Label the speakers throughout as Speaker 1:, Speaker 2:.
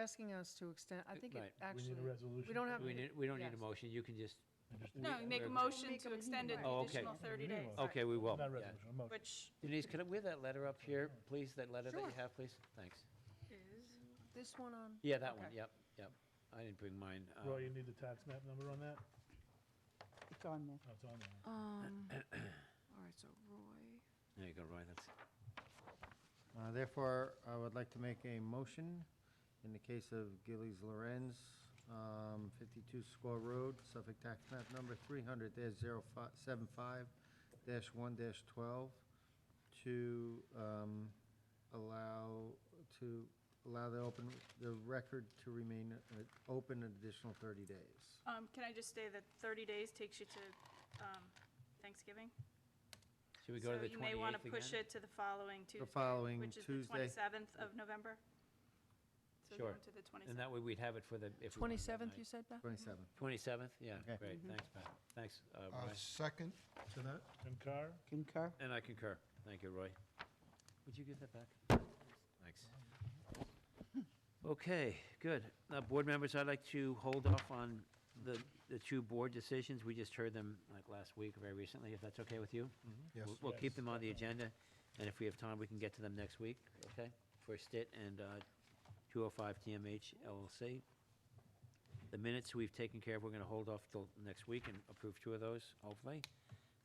Speaker 1: asking us to extend, I think it
Speaker 2: Right.
Speaker 3: We need
Speaker 1: actually,
Speaker 3: a resolution.
Speaker 1: we don't have,
Speaker 2: We need, we don't need a
Speaker 1: Yes.
Speaker 2: motion, you can just,
Speaker 4: No, you make a
Speaker 2: We're-
Speaker 4: motion
Speaker 1: Make
Speaker 4: to
Speaker 1: them
Speaker 4: extend it
Speaker 2: anyway.
Speaker 4: the
Speaker 2: Oh, okay.
Speaker 4: additional 30 days,
Speaker 2: okay, we will.
Speaker 3: Not
Speaker 2: yeah.
Speaker 3: resolution, a motion.
Speaker 4: which
Speaker 2: Denise, could I, we have that letter up here, please, that letter that you
Speaker 1: Sure.
Speaker 2: have, please? Thanks.
Speaker 4: is,
Speaker 1: this one on,
Speaker 2: Yeah, that one,
Speaker 4: Okay.
Speaker 2: yep, yep. I didn't bring mine. um,
Speaker 3: Roy, you need the tax map number on that?
Speaker 5: It's on there.
Speaker 3: Oh, it's on there.
Speaker 1: um, all right, so Roy.
Speaker 2: There you go, Roy, that's,
Speaker 6: Uh, Therefore, I would like to make a motion in the case of Gillies Lorenz, um, 52 Squaw Road, Suffolk Tax Map Number 300-075-1-12, to um, allow, to allow the open, the record to remain uh, open an additional 30 days.
Speaker 4: um, can I just say that 30 days takes you to um, Thanksgiving?
Speaker 2: should we go to the
Speaker 4: So you may want
Speaker 2: 28th
Speaker 4: to push
Speaker 2: again?
Speaker 4: it to the following Tuesday.
Speaker 6: following
Speaker 4: Which is
Speaker 6: Tuesday.
Speaker 4: the 27th of November. So
Speaker 2: Sure.
Speaker 4: go to the 27th.
Speaker 2: And that way we'd have it for the, if we wanted that
Speaker 1: Twenty-seventh,
Speaker 2: night.
Speaker 1: you said, Beth?
Speaker 6: 27.
Speaker 2: Twenty-seventh, yeah,
Speaker 6: Okay.
Speaker 2: great,
Speaker 4: Mm-hmm.
Speaker 2: thanks, Pat, thanks, uh,
Speaker 7: Uh,
Speaker 2: Roy.
Speaker 7: Second to that?
Speaker 3: Jim Carr?
Speaker 5: Concur?
Speaker 2: And I concur, thank you, Roy. Would you give that back? Thanks. Okay, good. Now, board members, I'd like to hold off on the, the two board decisions, we just heard them like last week, or very recently, if that's okay with you?
Speaker 7: Yes.
Speaker 2: We'll- We'll keep
Speaker 3: Yes.
Speaker 2: them on the agenda, and if we have time, we can get to them next week, okay? For Stitt and uh, 205 TMH LLC. The minutes we've taken care of, we're going to hold off till next week and approve two of those, hopefully.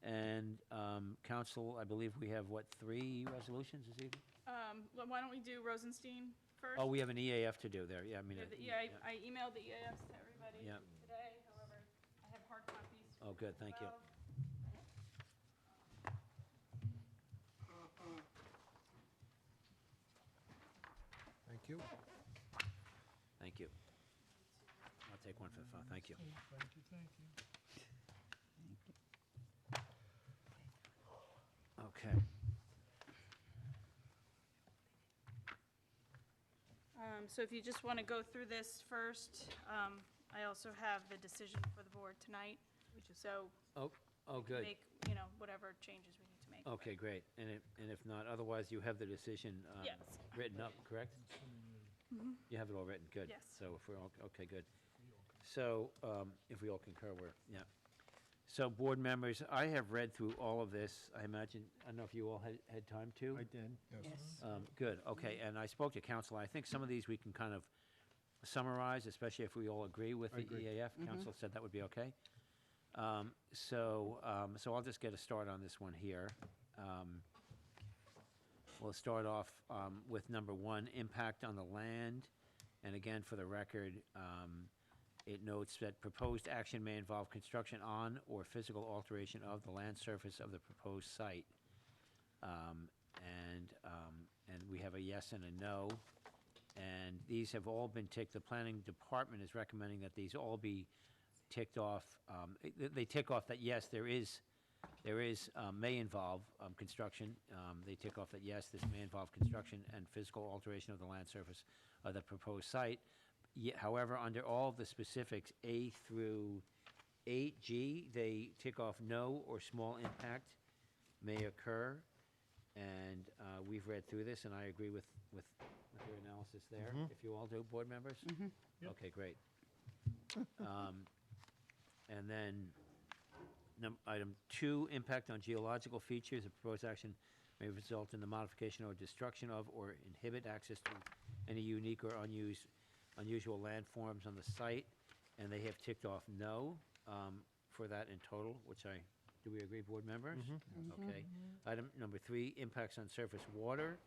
Speaker 2: And um, council, I believe we have, what, three resolutions this evening?
Speaker 4: Um, well, Why don't we do Rosenstein first?
Speaker 2: Oh, we have an EAF to do there, yeah, I mean.
Speaker 4: Yeah,
Speaker 2: uh,
Speaker 4: the EA, I emailed the EAFs to everybody
Speaker 2: Yeah.
Speaker 4: today, however, I have hard copies. for
Speaker 2: Oh, good,
Speaker 4: as
Speaker 2: thank you.
Speaker 4: well.
Speaker 7: Thank you.
Speaker 2: Thank you. I'll take one for the phone, thank you.
Speaker 3: Thank you, thank you.
Speaker 2: Okay.
Speaker 4: Um, So if you just want to go through this first, um, I also have the decision for the board tonight, so
Speaker 2: Oh, oh, good. Oh,
Speaker 4: make, you know, whatever changes we need to make.
Speaker 2: Okay, great. And if, and if not, otherwise you have the decision um,
Speaker 4: Yes.
Speaker 2: written up, correct? You have it all written, good.
Speaker 4: Yes.
Speaker 2: So if we're all, okay, good. So um, if we all concur, we're, yeah. So board members, I have read through all of this. I imagine, I don't know if you all had, had time to?
Speaker 6: I did.
Speaker 5: Yes.
Speaker 2: Um, Good, okay, and I spoke to council, I think some of these we can kind of summarize, especially if we all agree with the EAF. Council said that would be okay. Um, So, um, so I'll just get a start on this one here. Um, We'll start off um, with number one, impact on the land. And again, for the record, um, it notes that proposed action may involve construction on or physical alteration of the land surface of the proposed site. Um, And, um, and we have a yes and a no. And these have all been ticked, the planning department is recommending that these all be ticked off. Um, They they tick off that, yes, there is, there is, um, may involve um, construction. Um, They tick off that, yes, this may involve construction and physical alteration of the land surface of uh, the proposed site. Ye- However, under all of the specifics, A through 8G, they tick off no or small impact may occur. And uh, we've read through this, and I agree with, with with your analysis there, if you all do, board members?
Speaker 3: Yep.
Speaker 2: Okay, great. Um, And then, num- item two, impact on geological features, the proposed action may result in the modification or destruction of or inhibit access to any unique or unused, unusual landforms on the site, and they have ticked off no um, for that in total, which I, do we agree, board members?
Speaker 6: Mm-hmm.
Speaker 1: Mm-hmm.
Speaker 2: Okay. Item number three, impacts on surface water.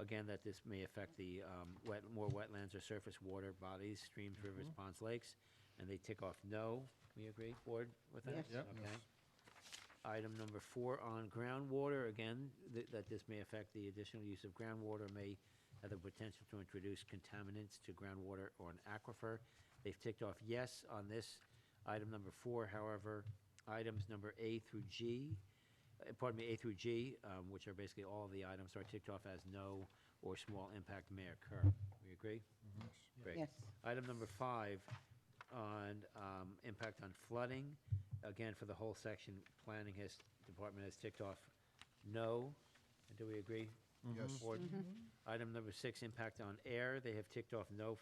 Speaker 2: Again, that this may affect the um, wet, more wetlands or surface water bodies, streams, rivers, ponds, lakes, and they tick off no. We agree, board, with that?
Speaker 5: Yes.
Speaker 6: Yep.
Speaker 2: Okay. Item number four on groundwater, again, th- that this may affect the additional use of groundwater, may have the potential to introduce contaminants to groundwater or an aquifer. They've ticked off yes on this. Item number four, however, items number A through G, uh, pardon me, A through G, um, which are basically all of the items, are ticked off as no or small impact may occur. We agree?
Speaker 7: Mm-hmm.
Speaker 2: Great.
Speaker 5: Yes.
Speaker 2: Item number five on um, impact on flooding. Again, for the whole section, planning has, department has ticked off no. And do we agree?
Speaker 7: Yes.
Speaker 2: Board? Item number six, impact on air. They have ticked off no